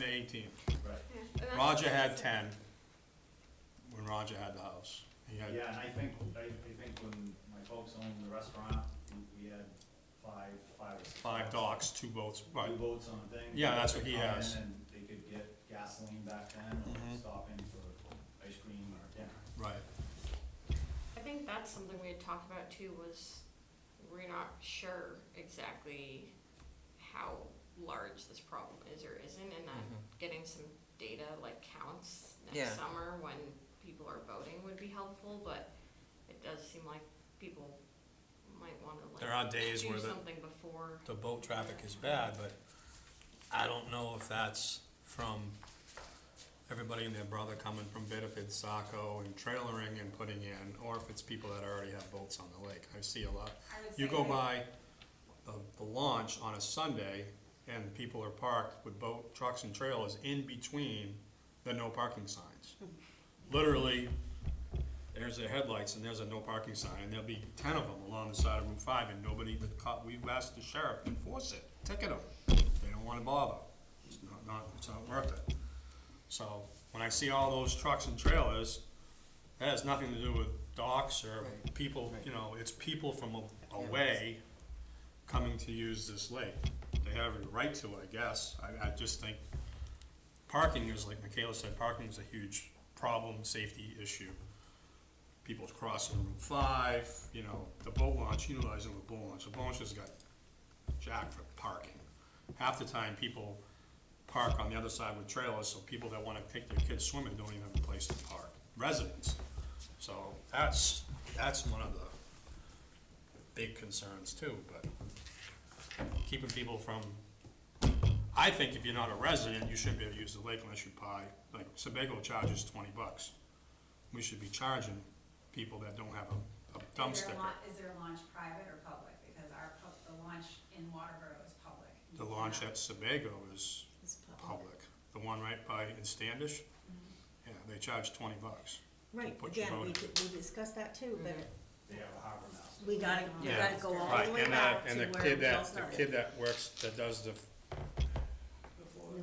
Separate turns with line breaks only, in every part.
to eighteen.
Right,
Yeah, and that's-
Roger had ten, when Roger had the house. He had,
yeah, and I think, I, I think when my folks owned the restaurant, we- we had five, five or six.
five
boats.
docks, two boats, right,
Two boats on a thing.
Yeah, that's what he
Come in
has.
And they could get gasoline back then, or
Mhm.
stop in for ice cream or dinner.
right.
I think that's something we had talked about too, was we're not sure exactly how large this problem is or isn't, and
Mm-hmm.
that getting some data like counts
Yeah.
next summer when people are voting would be helpful, but it does seem like people might wanna like
There are days
do
where the-
something before.
The boat traffic is bad, but I don't know if that's from everybody and their brother coming from Bedford, Saco, and trailering and putting in, or if it's people that already have boats on the lake. I see a lot.
I would
You
say
go
that-
by the, the launch on a Sunday, and people are parked with boat, trucks and trailers in between the no parking signs. Literally, there's their headlights and there's a no parking sign, and there'll be ten of them along the side of Route Five, and nobody, the cop, we've asked the sheriff to enforce it, ticket them. They don't wanna bother, it's not, not, it's not worth it. So, when I see all those trucks and trailers, that has nothing to do with docks or
Right.
people, you know, it's people from a- away coming to use this lake. They have a right to, I guess. I, I just think parking is, like Michaela said, parking is a huge problem, safety issue. People crossing Route five, you know, the boat launch, utilizing the boat launch, the boat launch has got jacked for parking. Half the time, people park on the other side with trailers, so people that wanna take their kids swimming don't even have a place to park, residents. So that's, that's one of the big concerns too, but keeping people from, I think if you're not a resident, you shouldn't be able to use the lake unless you buy, like, Sebago charges twenty bucks. We should be charging people that don't have a- a dump
Is there a
sticker.
laun- Is there a launch private or public? Because our, pub- the launch in Waterboro is public. You
The launch
cannot-
at Sebago is public, the one right by, in Standish, yeah, they charge twenty bucks.
Right,
put your
again, we,
vote
di- we discussed that too, but
They have a harbor master.
we gotta, we
Yeah.
gotta go all
Right,
the way
and
back
that,
to
and
where
the kid
we all
that, the
started.
kid that works, that does the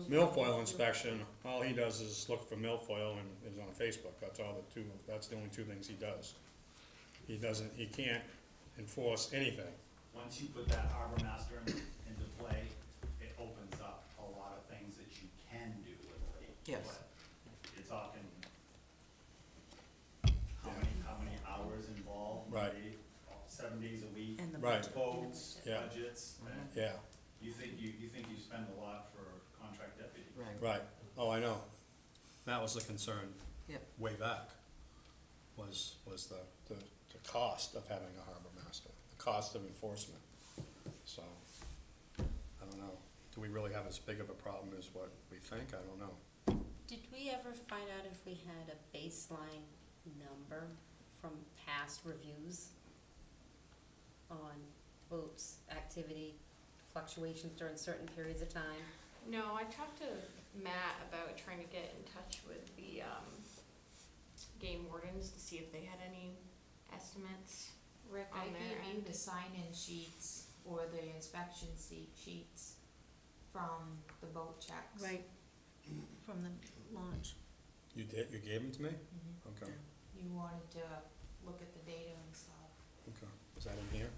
milfoil inspection, all he does is look for milfoil and is on Facebook, that's all the two, that's the only two things he does. He doesn't, he can't enforce anything,
Once you put that harbor master in- into play, it opens up a lot of things that you can do with a lake.
Yes.
but It's often how many, how many hours involved?
Right.
day, Seven days a week.
And the
Right.
budget.
Boats,
Yeah.
budgets, and
yeah,
you think you, you think you spend a lot for contract deputy.
Right,
right, oh, I know. That was the concern
yep,
way back, was, was the, the, the cost of having a harbor master, the cost of enforcement, so, I don't know. Do we really have as big of a problem as what we think? I don't know.
Did we ever find out if we had a baseline number from past reviews on boats, activity, fluctuations during certain periods of time?
No, I talked to Matt about trying to get in touch with the, um, game wardens to see if they had any estimates.
Rick,
on
I
their
gave you
end.
the sign-in sheets or the inspection seat sheets from the boat checks.
Right, from the launch.
You did, you gave them to me?
Mhm.
Okay,
You wanted to look at the data and stuff.
okay. Is that in here?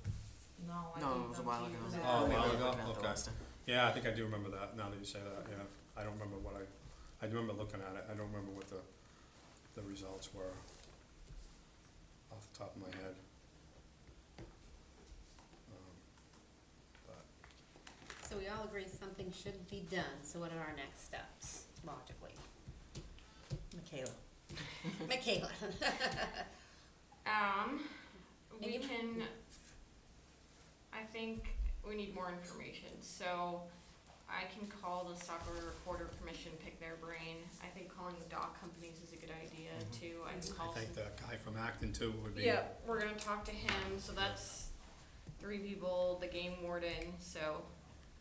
No, Oh, I
no,
gave
it was a
them
while
to
ago.
you
I
back.
Oh, a
remember
while
looking
ago,
at the
okay.
last time.
Yeah, I think I do remember that, now that you say that, yeah. I don't remember what I, I do remember looking at it, I don't remember what the, the results were off the top of my head. Um, But,
So we all agree something should be done, so what are our next steps logically?
Michaela.
Michaela?
Um, we
Maybe-
can, I think we need more information, so I can call the soccer reporter commission, pick their brain. I think calling the dock companies is a good idea
Mhm.
too, I can
I
call some
think that guy from Acton too would be.
Yeah, we're gonna talk to him, so that's three people, the game warden, so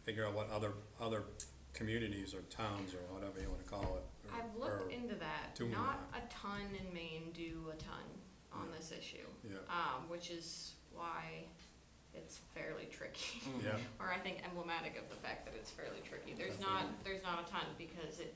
Figure out what other, other communities or towns or whatever you wanna call it. or-
I've
or-
looked into that.
doing
Not a ton in Maine do a ton on
Yeah.
this issue,
Yeah,
um, which is why it's fairly tricky.
Mm.
yeah,
Or I think emblematic of the fact that it's fairly tricky. There's not, there's not a ton because it